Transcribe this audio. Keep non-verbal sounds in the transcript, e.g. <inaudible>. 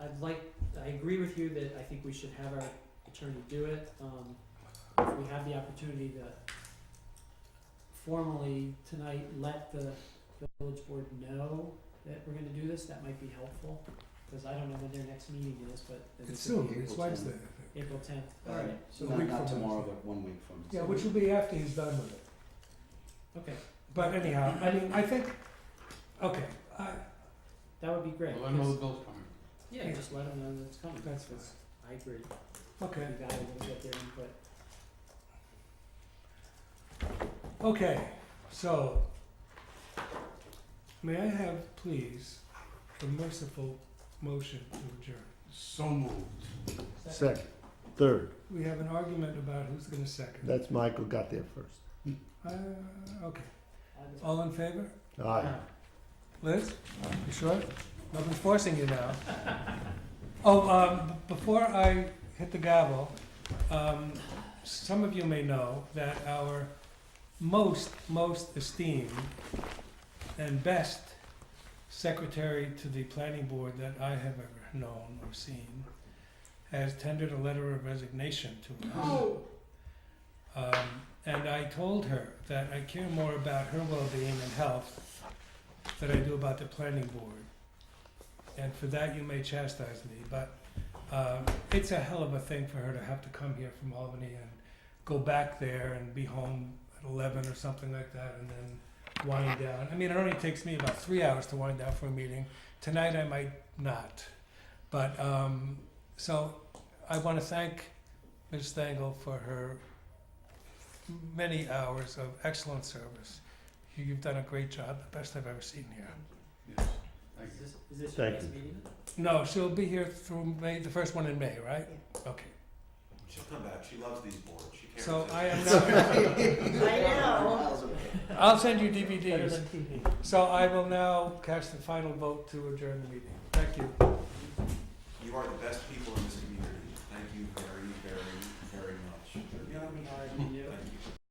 I'd like, I agree with you that I think we should have our attorney do it, um, if we have the opportunity to formally tonight let the village board know that we're gonna do this, that might be helpful, cause I don't know when their next meeting is, but It's it's soon, April it's 10th. Wednesday, I think. April tenth, Uh, alright, so a not, week not from tomorrow, Wednesday. but one week from. Yeah, today. which will be after he's done with it. okay, But anyhow, I mean, I think, okay, I, that would be great, Well, I know the 'cause- bill's coming. yeah, just let them know that it's coming, that's fine, I agree, we okay. gotta get their input, Okay, so, may I have, please, a merciful motion to adjourn? So moved. Second, third, We have an argument about who's gonna second. that's Michael got there first. Uh, okay, I would- all in favor? Aye. Liz, you sure? Nobody's forcing you now. <laughs> Oh, um, b- before I hit the gavel, um, some of you may know that our most, most esteemed and best secretary to the planning board that I have ever known or seen has tendered a letter of resignation to us. Um, and I told her that I care more about her well-being and health than I do about the planning board. And for that, you may chastise me, but um, it's a hell of a thing for her to have to come here from Albany and go back there and be home at eleven or something like that, and then wind down. I mean, it only takes me about three hours to wind down for a meeting. Tonight, I might not, but um, so I want to thank Ms. Stengel for her many hours of excellent service. You- You've done a great job, the best I've ever seen here. Yes, thank Is you. this, is this your Thank next you. meeting? No, she'll be here through May, the first one in May, right? Okay. She'll come back. She loves these boards. She can't So resist. I am now, <laughs> I know. I'll send you Better DVDs. than TV. So I will now cast the final vote to adjourn the meeting. Thank you. You are the best.